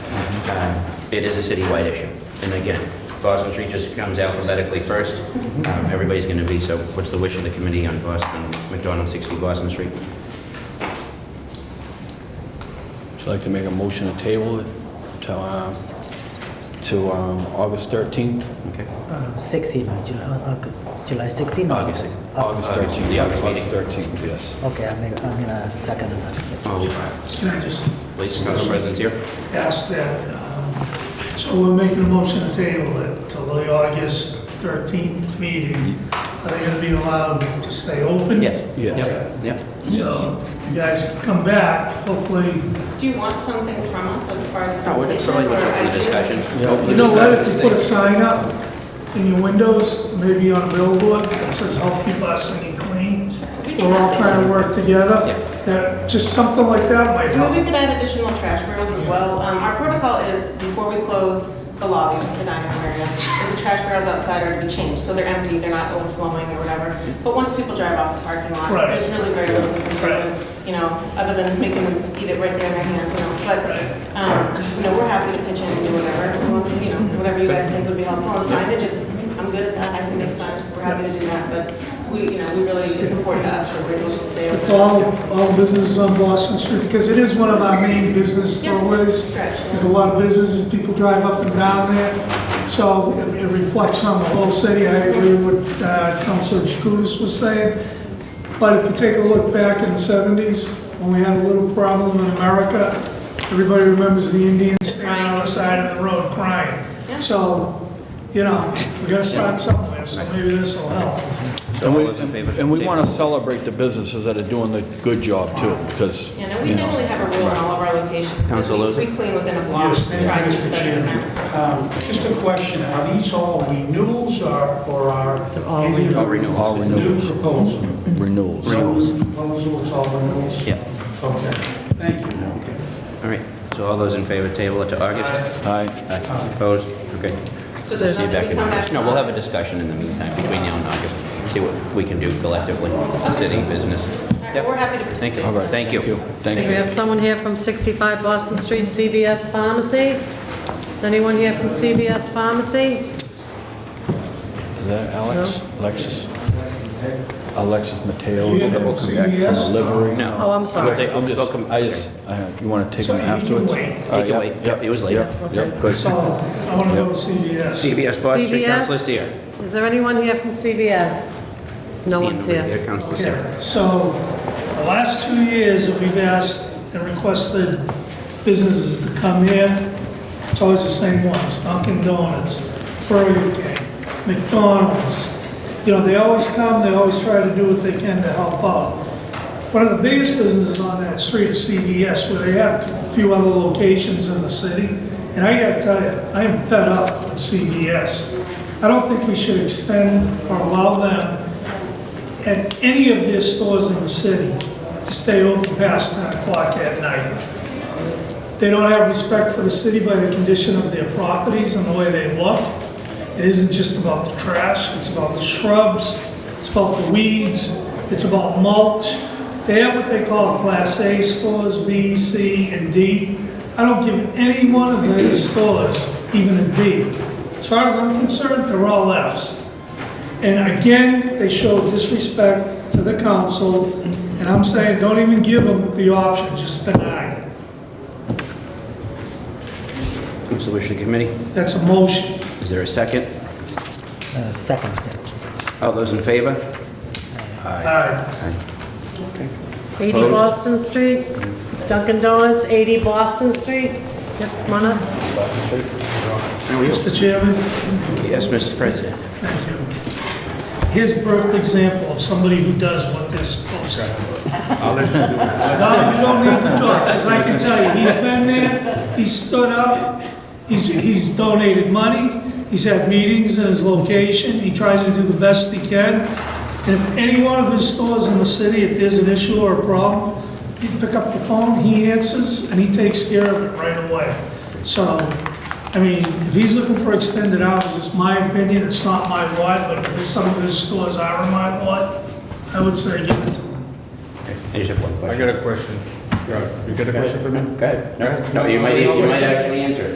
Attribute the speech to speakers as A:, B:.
A: Um, It is a citywide issue. And again, Boston Street just comes alphabetically first. Um, Everybody's going to be, so what's the wish of the committee on Boston, McDonald 60 Boston Street?
B: Would you like to make a motion to table it to, um, to um, August 13th?
A: Okay.
C: Uh, 16, uh, July, uh, August- July 16? or
A: August.
B: August 13th.
A: the August meeting.
B: August 13th, yes.
C: Okay, I mean, I mean, uh, second. that.
A: All these
D: Can I just
A: Oh, Please, council president's here.
D: ask that, um, so we're making a motion to table it till the August 13th meeting. Are they going to be allowed to stay open?
A: Yes.
B: Yes.
A: Yep, yep.
D: So you guys come back, hopefully.
E: Do you want something from us as far as
A: No, we're just
E: presentation
A: probably
E: or
A: just open the
E: ideas?
A: discussion. Open the
D: You know what, if you
A: discussion,
D: put a
A: say-
D: sign up in your windows, maybe on a billboard that says, help keep Boston clean, we're all trying to work together.
A: Yeah.
D: That, just something like that might
E: Well, we
D: help.
E: could add additional trash barrels as well. Um, Our protocol is, before we close the lobby, the dining room area, if the trash barrels outside are to be changed, so they're empty, they're not overflowing or whatever. But once people drive off the parking lot,
D: Right.
E: there's really very little we can
D: Right.
E: do, you know, other than making them eat it right there in their hands, you know. But,
D: Right.
E: um, you know, we're happy to pitch in and do whatever, you know, whatever you guys think would be helpful. And signage is, I'm good at that, I can make signs, we're happy to do that, but we, you know, we really, it's important to us that we're able to stay open.
D: All, all businesses on Boston Street, because it is one of our main business
E: Yeah, it's a
D: thoroughways.
E: stretch, yeah.
D: There's a lot of businesses, people drive up and down there, so it it reflects on the whole city. I agree with what uh, Councilor Chakoudas was saying. But if you take a look back in the 70s, when we had a little problem in America, everybody remembers the Indians standing on the side of the road crying. So, you know, we gotta start somewhere, so maybe this will help.
A: So
B: And
A: all
B: we,
A: those in favor of
B: and we
A: table?
B: want to celebrate the businesses that are doing the good job too, because,
E: Yeah, no, we
B: you know.
E: definitely have a rule in all of our locations. that
A: Council
E: we-
A: Lozey?
E: We clean within a block,
F: Yes, thank you,
E: try to keep
F: Mr.
E: that in
F: Chairman.
E: mind.
F: Um, Just a question, are these all renewals or or are?
C: All
F: any of
A: All
F: these
A: renewals.
B: All renewals.
F: New proposal?
B: Renewals.
A: Renewals.
F: All new Proposals, all renewals?
A: Yeah.
F: Okay, thank you.
A: All right, so all those in favor, table it to August?
B: Aye.
A: Aye. Opposed? Okay.
E: So there's
A: See you
E: nothing
A: back
E: to
A: in
E: come
A: August.
E: back
A: No, we'll have a discussion in the meantime between now and August, see what we can do collectively, city business.
E: All
A: Yep.
E: right, We're happy to
A: Thank you.
E: participate.
B: All right.
A: Thank you.
B: Thank
G: We
B: you.
G: have someone here from 65 Boston Street, CVS Pharmacy. Is anyone here from CVS Pharmacy?
B: Is that Alex? Alexis? Alexis Mateo is going
D: You have
B: to come back from
D: CVS?
B: delivery.
A: No.
G: Oh, I'm sorry.
A: We'll take-
B: I'm
A: we'll
B: just,
A: come-
B: I just, I- you want to take
D: So
B: them
D: you can
B: afterwards?
D: wait.
B: All right,
A: Take it
B: yep,
A: away. Yep, it was later.
B: Yep, yep, good.
D: So, I wanna go to CVS.
A: CBS Boston Street,
G: CBS?
A: Councilor Seer.
G: Is there anyone here from CVS? No
A: Seeing
G: one's
A: nobody
G: here.
A: there, Councilor Seer.
D: Okay, So, the last two years that we've asked and requested businesses to come here, it's always the same ones, Dunkin' Donuts, Burger King, McDonald's. You know, they always come, they always try to do what they can to help out. One of the biggest businesses on that street is CVS, where they have a few other locations in the city. And I gotta tell you, I am fed up with CVS. I don't think we should extend or allow them at any of their stores in the city to stay open past 10 o'clock at night. They don't have respect for the city by the condition of their properties and the way they look. It isn't just about the trash, it's about the shrubs, it's about the weeds, it's about mulch. They have what they call Class A stores, B, C, and D. I don't give any one of their stores even a D. As far as I'm concerned, they're all Fs. And again, they show disrespect to the council, and I'm saying, don't even give them the option, just deny.
A: What's the wish of the committee?
D: That's a motion.
A: Is there a second?
C: Uh, Second,
A: All those in favor?
D: All right.
G: 80
A: Opposed?
G: Boston Street, Dunkin' Donuts, 80 Boston Street. Yep, come on up.
D: Mr. Chairman,
A: Yes, Mr. President.
D: thank you. Here's a perfect example of somebody who does what they're supposed to. do. No, you don't need to talk, because I can tell you, he's been there, he's stood up, he's, he's donated money, he's had meetings in his location, he tries to do the best he can. And if any one of his stores in the city, if there's an issue or a problem, he pick up the phone, he answers, and he takes care of it right away. So, I mean, if he's looking for extended hours, it's my opinion, it's not my lot, but if some of his stores are in my lot, I would say give it to him.
A: I just have one
H: I
A: question.
H: got a question. You got a question for me?
A: Go ahead. No, you might, you might actually answer it.